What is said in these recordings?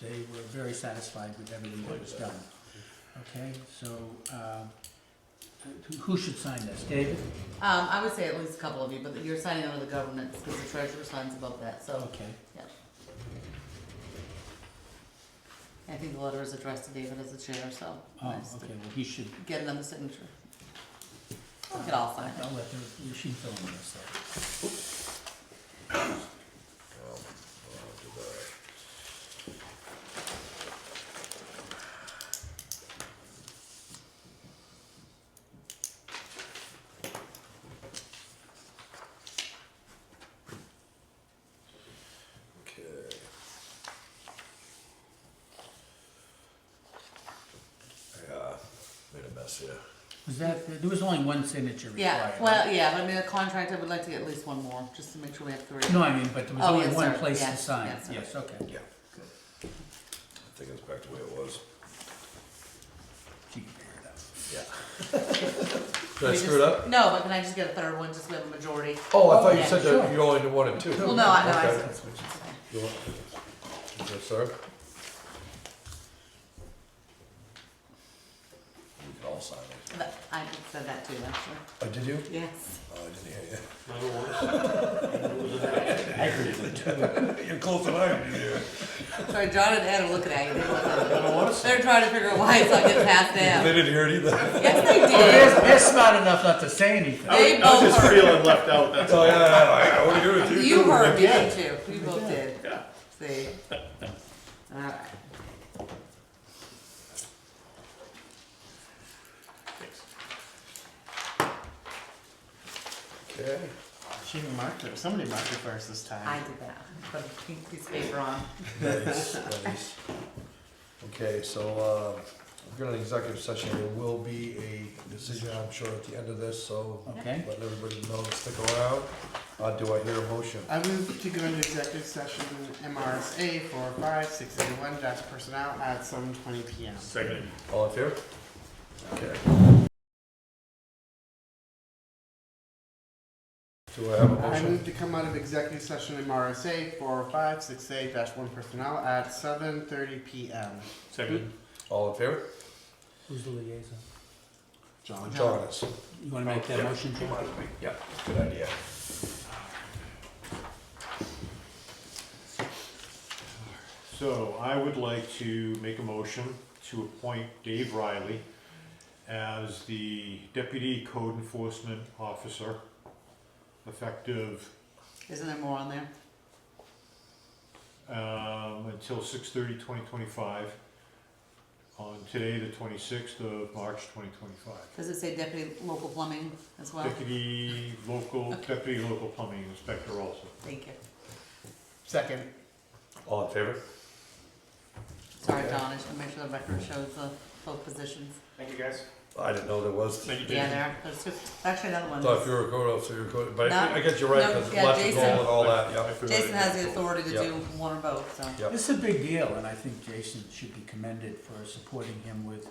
They were very satisfied with everything that was done. Okay, so, uh, who- who should sign this? David? Um, I would say at least a couple of you, but you're signing under the governance because the treasurer signs above that, so Okay. I think the letter is addressed to David as the chair, so. Oh, nice to okay, well, he should, Get another signature. We could all sign it. I'll let her, she can fill in this. though. Well, I'll do that. Okay. Yeah, uh, made a mess here. Was that, there was only one signature required. Yeah, well, yeah, but I mean, the contract, I would like to get at least one more, just to make sure we have three. No, I mean, but there was Oh, only yes, one sir. place to Yes, sign. yes, sir. Yes, okay. Yeah. I think it's back to the way it was. She can figure it out. Yeah. Did I We screw it just- up? No, but can I just get a third one, just so we have a majority? Oh, I thought you Yeah, said sure. that you only did one and two. Well, no, I know, I Okay. said. You want- Yes, sir. We can all sign it. That- I said that too, actually. Oh, did you? Yes. Oh, I didn't hear you. You're close than I am. Sorry, John and Ed are looking at you. They look at I don't want to it. They're trying to figure out why it's not getting passed you. They down. didn't hear it either. Yes, they did. They're, they're smart enough not to say anything. They I was both just heard. feeling left out, that's Oh, all. yeah, yeah, yeah, I would agree with you. You too. heard me, Yeah. didn't you? We both did. Yeah. See? Alright. Okay. She marked it. Somebody marked it first this time. I did that. Put a pink piece of paper on. Nice, nice. Okay, so, uh, we're gonna executive session, there will be a decision, I'm sure, at the end of this, so Okay. letting everybody know to stick around. Uh, do I hear a motion? I move to go into executive session MRSA four five six eight one dash personnel at seven twenty PM. Second. All in favor? Okay. Do I have a I motion? move to come out of executive session MRSA four five six eight dash one personnel at seven thirty PM. Second. All in favor? Who's the liaison? John. John is. You wanna make that Yeah. motion, Jim? Yeah, good idea. So I would like to make a motion to appoint Dave Riley as the deputy code enforcement officer, effective, Isn't there more on there? um, until 2025. On today, the twenty-sixth of March, twenty twenty-five. Does it say deputy local plumbing as well? Deputy local, deputy local plumbing inspector also. Thank you. Second. All in favor? Sorry, Okay. John, I should make sure the record shows the both positions. Thank you, guys. I didn't know there was. Thank you, Yeah, Jason. there, there's just, actually another one. Thought if you were a code officer, you were code, but I I guess you're right, No, because yeah, lots of goal Jason- and all that, yeah. Jason has the authority to Yeah. do one or both, so. Yep. This is a big deal, and I think Jason should be commended for supporting him with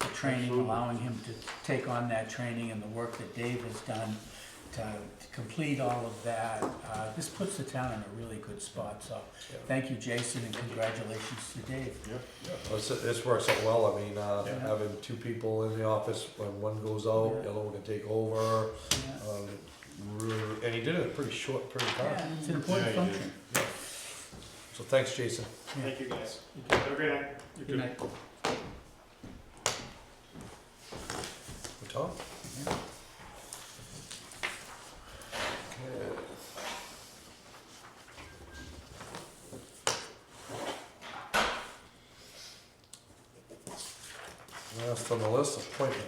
the training, Absolutely. allowing him to take on that training and the work that Dave has done to to complete all of that. Uh, This puts the town in a really good spot, so Yeah. thank you, Jason, and congratulations to Dave. This, this works out well, I mean, uh, Yeah. having two people in the office, when one goes out, the other one can take over. Yeah. Um, really- And he did it in a pretty short period of time, Yeah, It's an important Yeah, you did. function. so thanks, Jason. Thank you, guys. Have a great night. You Good night. Tom? Yeah. Okay. Last on the list, appointment.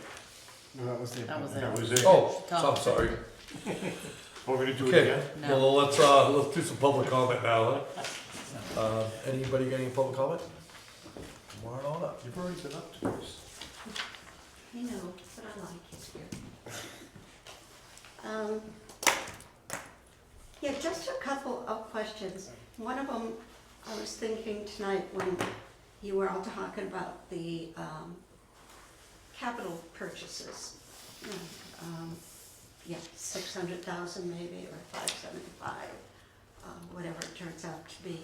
No, that was the. That was it. That was it. Oh, Tom. I'm sorry. We're gonna do it Okay. again? No, Well, let's, uh, let's do some public comment now. huh? Uh, anybody got any public comment? Come on on up. You've already been up to this. I know, but I like it here. Um, Yeah, just a couple of questions. One of them, I was thinking tonight when you were all talking about the um, capital purchases. Um, Yeah, six hundred thousand maybe, or five seventy-five, whatever it uh, turns out to be.